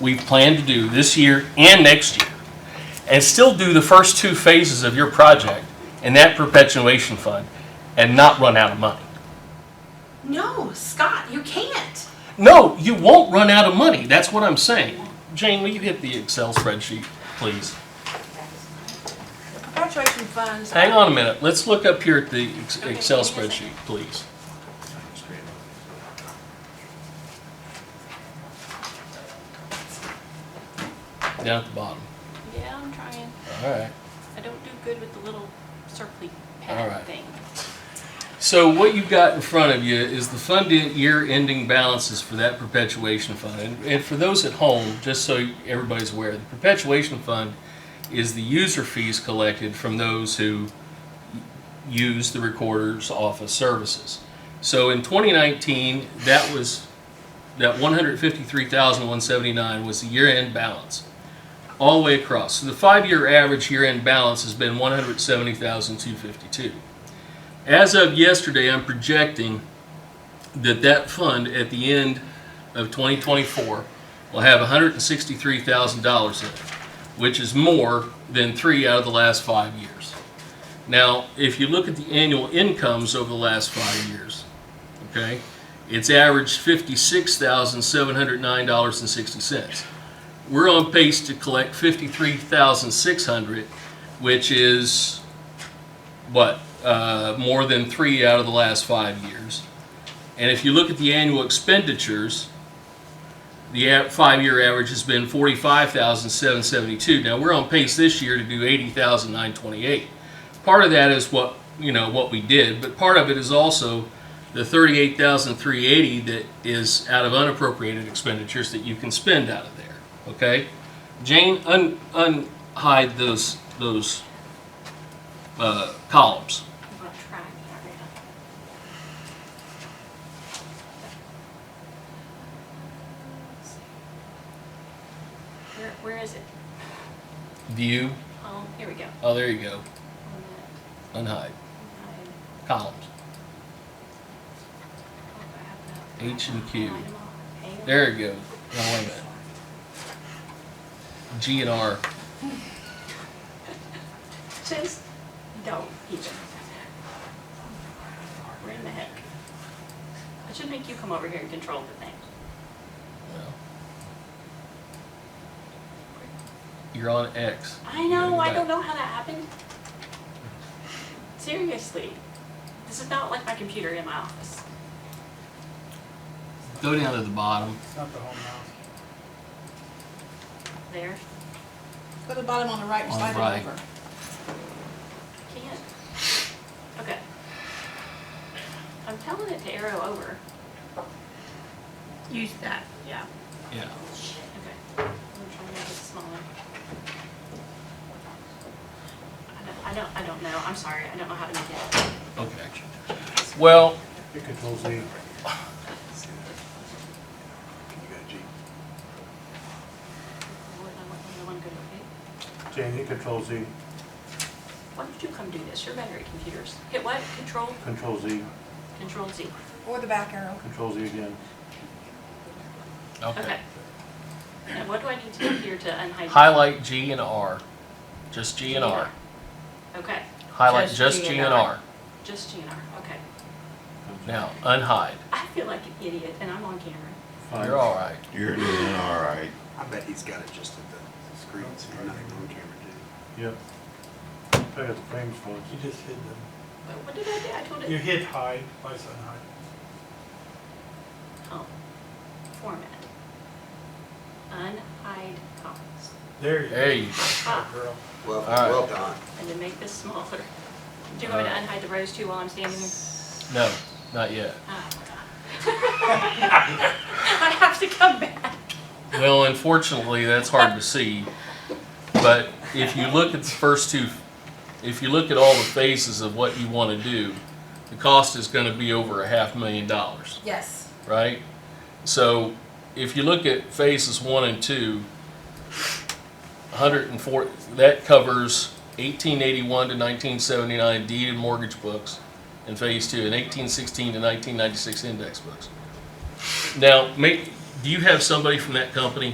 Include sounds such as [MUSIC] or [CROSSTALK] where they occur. we plan to do this year and next year, and still do the first two phases of your project in that perpetuation fund and not run out of money. No, Scott, you can't. No, you won't run out of money. That's what I'm saying. Jane, will you hit the Excel spreadsheet, please? The perpetuation funds. Hang on a minute. Let's look up here at the ex- Okay, Excel give me a second. spreadsheet, please. Down at the bottom. Yeah, I'm trying. All right. I don't do good with the little circly pad All right. thing. So what you've got in front of you is the fund en- year-ending balances for that perpetuation fund. And- And for those at home, just so everybody's aware, the perpetuation fund is the user fees collected from those who use the recorder's office services. So in 2019, that was, that 153,179 was the year-end balance, all the way across. So the five-year average year-end balance has been 170,252. As of yesterday, I'm projecting that that fund at the end of 2024 will have $163,000 in it, which is more than three out of the last five years. Now, if you look at the annual incomes over the last five years, okay, it's averaged $56,709.60. We're on pace to collect 53,600, which is what, uh, more than three out of the last five years. And if you look at the annual expenditures, the a- five-year average has been forty-five thousand seven seventy-two. Now, we're on pace this year to do eighty thousand nine twenty-eight. Part of that is what, you know, what we did, but part of it is also the thirty-eight thousand three eighty that is out of unappropriated expenditures that you can spend out of there, okay? Jane, un, unhide those, those, uh, columns. I'm gonna try and figure it out. Let's see. Where, where is it? View, Um, here we go. oh, there you go, On that, Oh, unhide, I- columns. H and Q. There you go, no, wait a minute. G and R, Just don't even. Where in the heck? I should make you come over here and control the thing. well. You're on X. I know, I don't know how that happened. Seriously, this is not like my computer in my office. Go down to the bottom, It's not the whole mouth. There, Go to the bottom on the right and On the slide right. it over. can't. Okay. I'm telling it to arrow over. Use that. Yeah. yeah. Okay. I'm trying to make it smaller. I don't- I don't, I don't know. I'm sorry. I don't know how to make it. Okay. Well, It controls the. What- I want the one good, okay? Jane, it controls the, Why don't you come do this? You're better at computers. Hit what? Control, control Z, control Z. Or the back arrow. control Z again. okay. Okay. Now, what do I need to do here to unhide? Highlight G and R, just G and R. Okay, Highlight Just just G G and and R. R. just GNR, okay. Now, unhide, I feel like an idiot and I'm on camera. Fine. you're all right. You're doing all right. I bet he's got it just at the screen, so you're not on camera, dude. Yep. I got the frames for You it. just hid them. But what did I do? I told You it, hit hide, why is that hide? oh, format. Unhide Ah. comments. There you go. There you go. Good girl. Well, All well done. And then make this smaller. Do you want me to unhide the rows too while I'm standing here? No, not yet. Oh, my God. [LAUGHS] I have to come back. Well, unfortunately, that's hard to see. But if you look at the first two, if you look at all the phases of what you want to do, the cost is going to be over a half million dollars, Yes. right? So if you look at phases one and two, 104, that covers 1881 to 1979 deed and mortgage books in phase two, and 1816 to 1996 index books. Now, make, do you have somebody from that company